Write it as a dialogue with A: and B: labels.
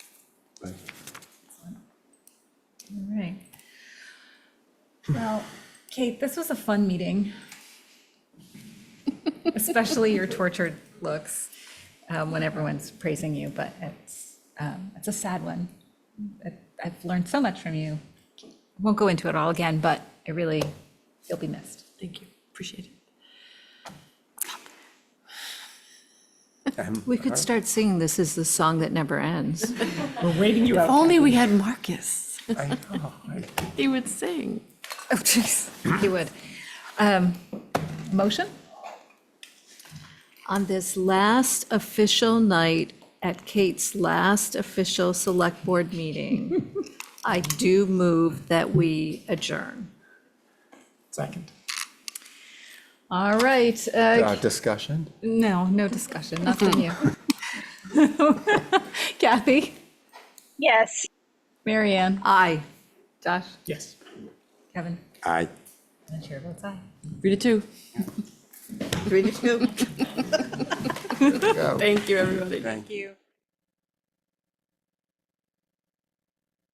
A: Right.
B: All right. Well, Kate, this was a fun meeting. Especially your tortured looks um, when everyone's praising you, but it's, um, it's a sad one. I- I've learned so much from you. Won't go into it all again, but I really, you'll be missed.
C: Thank you, appreciate it.
A: I'm-
D: We could start singing This Is the Song That Never Ends.
E: We're waiting you
C: If
E: out.
C: only we had Marcus,
A: I know, I-
C: he would sing.
B: Oh, jeez, you would. Um, Motion?
D: On this last official night at Kate's last official Select Board meeting, I do move that we adjourn.
E: Second.
B: All right. uh,
A: Uh, Discussion?
B: No, no discussion, not from you. Kathy?
F: Yes.
B: Marianne,
D: Aye.
B: Josh?
E: Yes.
B: Kevin?
A: Aye.
B: And Chair votes aye.
C: Read it too.
D: Three to two.
C: Thank you, everybody.
A: Thank
F: you.